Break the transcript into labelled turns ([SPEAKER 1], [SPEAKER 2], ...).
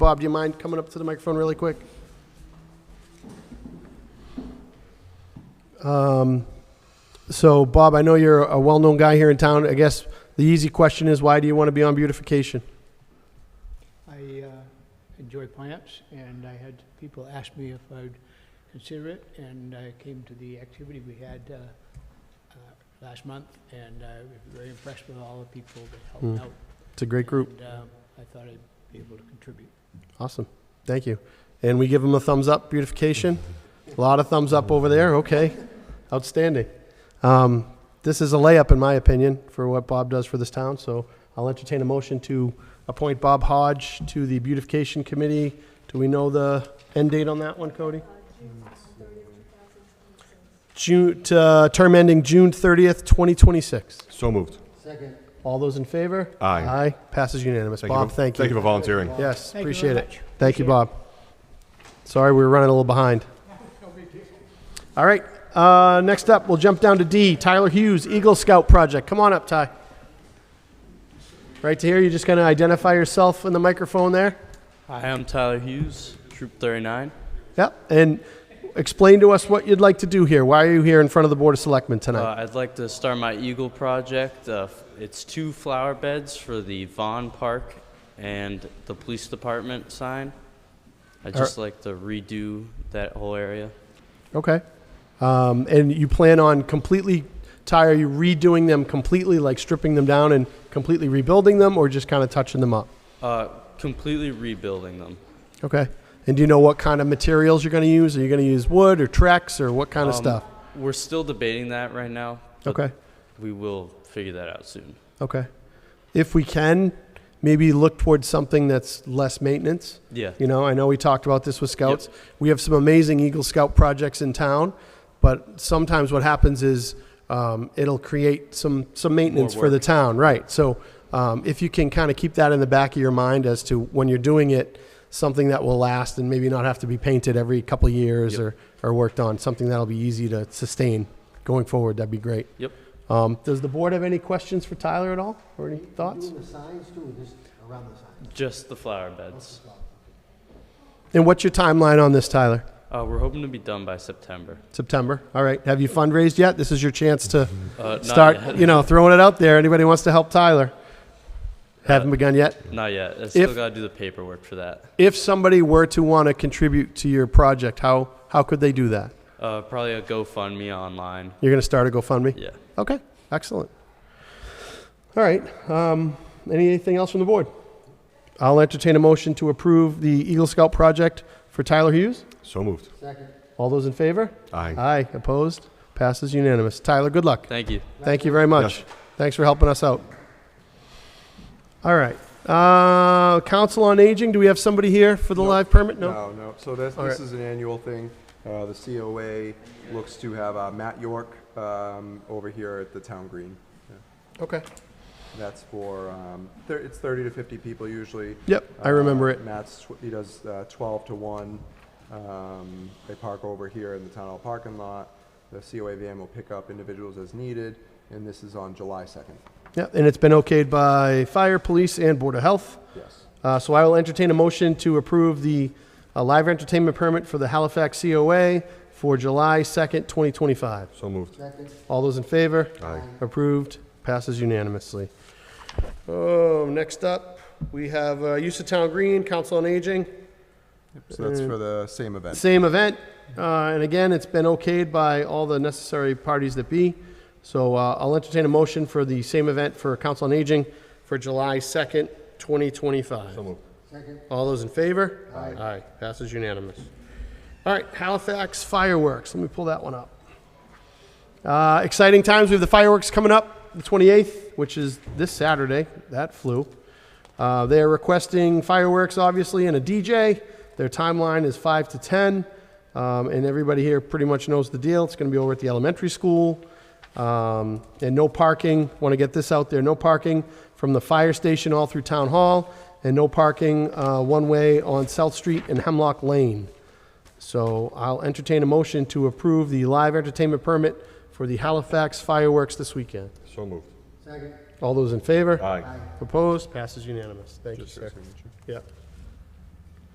[SPEAKER 1] Bob, do you mind coming up to the microphone really quick? Um, So, Bob, I know you're a well-known guy here in town. I guess the easy question is, why do you want to be on beautification?
[SPEAKER 2] I uh, enjoy plants, and I had people ask me if I'd consider it, and I came to the activity we had uh, uh, last month, and I was very impressed with all the people that
[SPEAKER 1] Mm.
[SPEAKER 2] helped out.
[SPEAKER 1] It's a great group.
[SPEAKER 2] And, um, I thought I'd be able to contribute.
[SPEAKER 1] Awesome. Thank you. And we give them a thumbs up, beautification. A lot of thumbs up over there. Okay. Outstanding. Um, this is a layup, in my opinion, for what Bob does for this town. So I'll entertain a motion to appoint Bob Hodge to the beautification committee. Do we know the end date on that one, Cody? June, uh, term ending June 30th, 2026.
[SPEAKER 3] So moved.
[SPEAKER 1] All those in favor?
[SPEAKER 3] Aye.
[SPEAKER 1] Aye. Passes unanimous.
[SPEAKER 3] for-
[SPEAKER 1] Bob, thank you.
[SPEAKER 3] Thank you for volunteering.
[SPEAKER 1] Yes,
[SPEAKER 2] Thank you
[SPEAKER 1] appreciate
[SPEAKER 2] very
[SPEAKER 1] it.
[SPEAKER 2] much.
[SPEAKER 1] Thank you,
[SPEAKER 2] Appreciate it.
[SPEAKER 1] Bob. Sorry, we were running a little behind. All right, uh, next up, we'll jump down to D, Tyler Hughes, Eagle Scout Project. Come on up, Ty. Right to here, you're just going to identify yourself in the microphone there?
[SPEAKER 4] Hi, I'm Tyler Hughes, Troop 39.
[SPEAKER 1] Yep, and explain to us what you'd like to do here. Why are you here in front of the Board of Selectmen
[SPEAKER 4] Uh,
[SPEAKER 1] tonight?
[SPEAKER 4] I'd like to start my Eagle project. Uh, f- it's two flower beds for the Vaughn Park and the police department sign. I'd just like to redo that whole area.
[SPEAKER 1] Okay. Um, And you plan on completely, Ty, are you redoing them completely, like stripping them down and completely rebuilding them, or just kind of touching them up?
[SPEAKER 4] Uh, completely rebuilding them.
[SPEAKER 1] Okay. And do you know what kind of materials you're going to use? Are you going to use wood or Trex or what kind of
[SPEAKER 4] Um,
[SPEAKER 1] stuff?
[SPEAKER 4] We're still debating that right now. but
[SPEAKER 1] Okay.
[SPEAKER 4] We will figure that out soon.
[SPEAKER 1] Okay. If we can, maybe look towards something that's less maintenance.
[SPEAKER 4] Yeah.
[SPEAKER 1] You know, I know we talked about this with scouts. We have some amazing Eagle Scout projects in town, but sometimes what happens is um, it'll create some some maintenance for the
[SPEAKER 4] work.
[SPEAKER 1] town, right? So um, if you can kind of keep that in the back of your mind as to when you're doing it, something that will last and maybe not have to be painted every couple of years or or worked on, something that'll be easy to sustain going forward. That'd be great.
[SPEAKER 4] Yep.
[SPEAKER 1] Um, does the board have any questions for Tyler at all or any thoughts?
[SPEAKER 5] Doing the signs too, or just around the signs?
[SPEAKER 4] Just the flower beds.
[SPEAKER 1] And what's your timeline on this, Tyler?
[SPEAKER 4] Uh, we're hoping to be done by September.
[SPEAKER 1] September. All right. Have you fundraised yet? This is your chance to
[SPEAKER 4] Uh, not
[SPEAKER 1] start,
[SPEAKER 4] yet.
[SPEAKER 1] you know, throwing it out there. Anybody wants to help Tyler? Haven't
[SPEAKER 4] Uh,
[SPEAKER 1] begun yet.
[SPEAKER 4] Not yet. I still
[SPEAKER 1] If-
[SPEAKER 4] got to do the paperwork for that.
[SPEAKER 1] If somebody were to want to contribute to your project, how how could they do that?
[SPEAKER 4] Uh, probably a GoFundMe online.
[SPEAKER 1] You're going to start a GoFundMe.
[SPEAKER 4] Yeah.
[SPEAKER 1] Okay. Excellent. All right. Um, anything else from the board? I'll entertain a motion to approve the Eagle Scout project for Tyler Hughes.
[SPEAKER 3] So moved.
[SPEAKER 5] Second.
[SPEAKER 1] All those in favor?
[SPEAKER 3] Aye.
[SPEAKER 1] Aye. Opposed? Passes unanimous. Tyler, good luck.
[SPEAKER 4] Thank you.
[SPEAKER 1] Thank you very much. Thanks for helping us out. All right. Uh, Council on Aging, do we have somebody here for the
[SPEAKER 6] No.
[SPEAKER 1] live permit? No?
[SPEAKER 6] No, no. So this,
[SPEAKER 1] All
[SPEAKER 6] this
[SPEAKER 1] right.
[SPEAKER 6] is an annual thing. Uh, the COA looks to have uh, Matt York, um, over here at the town green.
[SPEAKER 1] Okay.
[SPEAKER 6] That's for, um, thir- it's thirty to fifty people usually.
[SPEAKER 1] Yep, I remember
[SPEAKER 6] Uh,
[SPEAKER 1] it.
[SPEAKER 6] Matt's, tw- he does, uh, twelve to one. Um, they park over here in the town hall parking lot. The COA van will pick up individuals as needed, and this is on July second.
[SPEAKER 1] Yeah, and it's been okayed by Fire, Police, and Board of Health.
[SPEAKER 6] Yes.
[SPEAKER 1] Uh, So I will entertain a motion to approve the uh, live entertainment permit for the Halifax COA for July 2nd, 2025.
[SPEAKER 3] So moved.
[SPEAKER 1] All those in favor?
[SPEAKER 3] Aye.
[SPEAKER 1] Approved. Passes unanimously. Oh, next up, we have uh, use of town green, Council on Aging.
[SPEAKER 6] So
[SPEAKER 1] Mm.
[SPEAKER 6] that's for the same event.
[SPEAKER 1] Same event, uh, and again, it's been okayed by all the necessary parties that be. So uh, I'll entertain a motion for the same event for Council on Aging for July 2nd, 2025.
[SPEAKER 3] So moved.
[SPEAKER 1] All those in favor? Aye. Aye. Passes unanimous. All right, Halifax fireworks. Let me pull that one up. Uh, exciting times. We have the fireworks coming up the 28th, which is this Saturday. That flew. Uh, they are requesting fireworks, obviously, and a DJ. Their timeline is 5 to 10. Um, and everybody here pretty much knows the deal. It's going to be over at the elementary school. Um, and no parking. Want to get this out there no parking from the fire station all through Town Hall, and no parking uh, one way on South Street and Hemlock Lane. So I'll entertain a motion to approve the live entertainment permit for the Halifax fireworks this weekend.
[SPEAKER 3] So moved.
[SPEAKER 5] Second.
[SPEAKER 1] All those in favor?
[SPEAKER 3] Aye.
[SPEAKER 1] Opposed? Passes unanimous. Thank you, sir. Yeah.